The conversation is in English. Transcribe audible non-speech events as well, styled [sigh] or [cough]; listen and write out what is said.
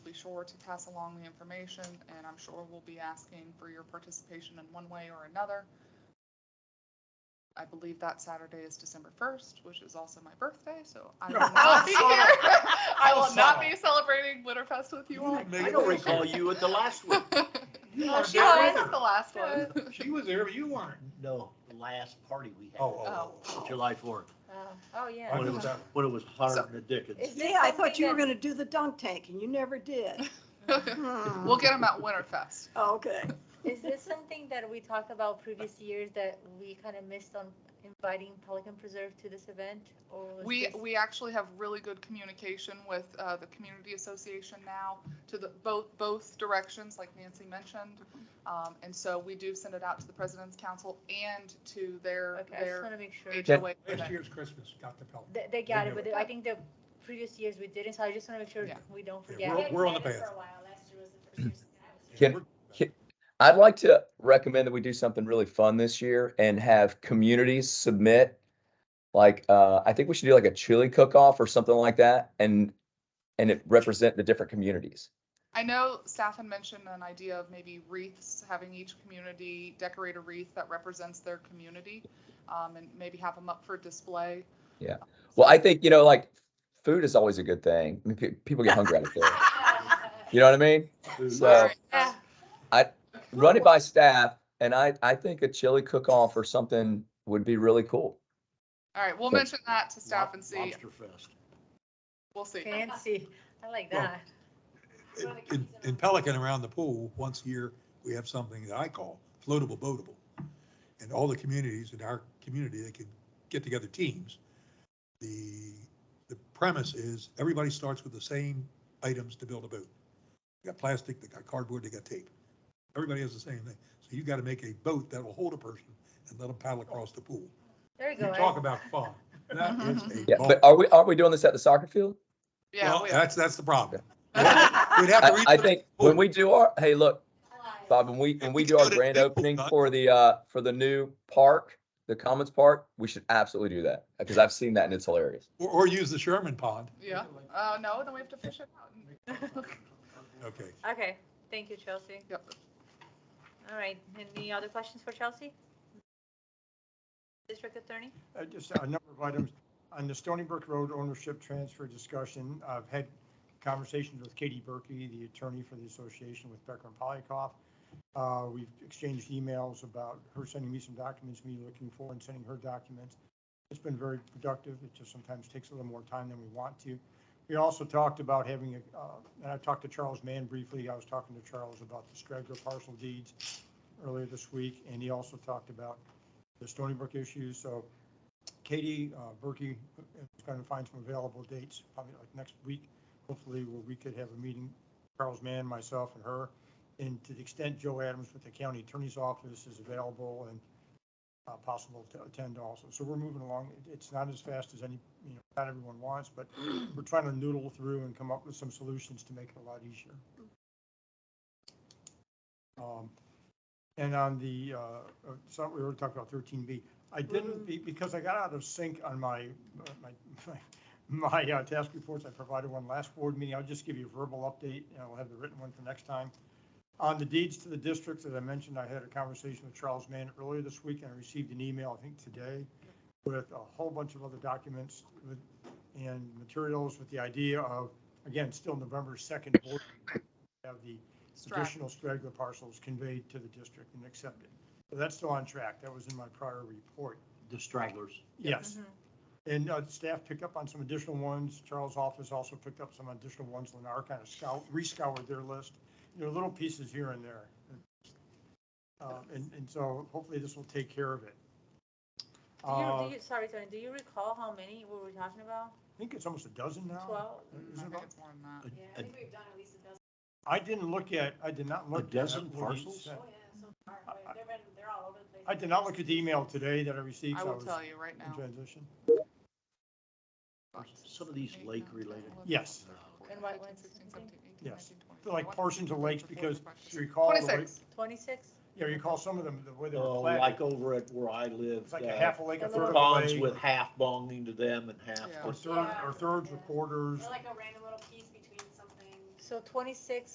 sure to pass along the information, and I'm sure we'll be asking for your participation in one way or another. I believe that Saturday is December first, which is also my birthday, so I will not be here. I will not be celebrating Winterfest with you all. I don't recall you at the last one. You Oh, [laughs] weren't she there was either. at the last one. [laughs] She was there, but you weren't. [laughs] No, the last party we had. Oh, oh, oh. July fourth, Oh, I yeah. when it missed was, that one. when it was hard in the dickens. Is this Yeah, I thought something you were that- gonna do the dunk tank and you never did. Hmm. We'll get them at Winterfest. Okay. Is this something that we talked about previous years that we kind of missed on inviting Pelican Preserve to this event? Or was We, this- we actually have really good communication with uh, the community association now to the, both, both directions, like Nancy mentioned. Mm-hmm. Um, And so we do send it out to the president's council and to their, Okay, I just their want to make sure. HOA. Last event. year's Christmas got the Pelican. They, they got They it, do but it. I think the previous years we didn't, so I just want to make sure Yeah. we don't Yeah, We're- forget. we're on the We've had it path. For a while, last year was the first year since I was here. Can- We're- I'd like to recommend that we do something really fun this year and have communities submit. Like, uh, I think we should do like a chili cook-off or something like that and, and it represent the different communities. I know staff had mentioned an idea of maybe wreaths, having each community decorate a wreath that represents their community um, and maybe have them up for display. Well, I think, you know, like food is always a good thing. I mean, pe- people get hungry out of food. You know what I mean? So Sorry. Yeah. run it by staff and I, I think a chili cook-off or something would be really cool. All right, we'll mention that to staff and see. Lobster fest. We'll see. Fancy. I like Well, that. In- In in Pelican around the pool, once a year, we have something that I call floatable boatable. And all the communities in our community, they can get together teams. The, the premise is everybody starts with the same items to build a boat. They got plastic, they got cardboard, they got tape. Everybody has the same thing. So you got to make a boat that will hold a person and let them paddle across the pool. There you You go. talk Ed. about fun. That is a Yeah, ball. but are we, aren't we doing this at the soccer field? Yeah, Well, we are. that's, that's the problem. We'd have to I, I redo think the pool. when we do our, hey, look, Alive. Bob, when we, when we we do go our to grand Newport, opening not- for the, uh, for the new park, the Commons Park, we should absolutely do that, because I've seen that and it's hilarious. Or, or use the Sherman pond. Yeah. Uh, no, then we have to fish it out. Okay. Okay, thank you, Chelsea. Yep. All right, any other questions for Chelsea? District Attorney? Uh, Just a number of items. On the Stony Brook Road ownership transfer discussion, I've had conversations with Katie Berkey, the attorney for the association with Becker and Polikoff. Uh, We've exchanged emails about her sending me some documents, me looking for and sending her documents. It's been very productive. It just sometimes takes a little more time than we want to. We also talked about having, a. uh, and I talked to Charles Mann briefly. I was talking to Charles about the straggler parcel deeds earlier this week, and he also talked about the Stony Brook issue. So Katie uh, Berkey is going to find some available dates, probably like next week, hopefully, where we could have a meeting, Charles Mann, myself, and her. And to the extent Joe Adams with the county attorney's office is available and uh, possible to attend also. So we're moving along. It- It's not as fast as any, you know, not everyone wants, but we're trying to noodle through and come up with some solutions to make it a lot easier. Um, And on the, uh, uh, so we already talked about thirteen B. I didn't, be- because I got out of sync on my, my, my, my uh, task reports, I provided one last board meeting, I'll just give you a verbal update, and I'll have the written one for next time. On the deeds to the districts, as I mentioned, I had a conversation with Charles Mann earlier this week, and I received an email, I think today, with a whole bunch of other documents with, and materials with the idea of, again, still November second, board meeting, have the Strap. additional straggler parcels conveyed to the district and accepted. So that's still on track. That was in my prior report. The stragglers. Yes. Mhm. And uh, staff picked up on some additional ones. Charles' office also picked up some additional ones. Lennar kind of scout, rescoured their list. There are little pieces here and there. Uh, And, and so hopefully this will take care of it. Do you, Uh, do you, sorry, Tony, do you recall how many we were talking about? I think it's almost a dozen now. Twelve? I Is it think about- it's more than [laughs] that. Yeah, I think we've done at least a dozen. I didn't look at, I did not A look. dozen at what he parcels? sent. Oh, yeah, so far. They've been, they're all over the place. I did not look at the email today that I received. I so will was tell you right In now. transition. Some of these lake-related- Yes. And what ones? Yes. They're like portions of lakes because you recall. the way- Twenty-six. Twenty-six? Yeah, you call some of them, the way they Oh, were platted, like over at where I live. it's like a uh, half a lake, a a third of a Bonds lake, with half belonging to them and half. Yeah. Or third, or thirds or quarters. They're like a random little piece between something. So twenty-six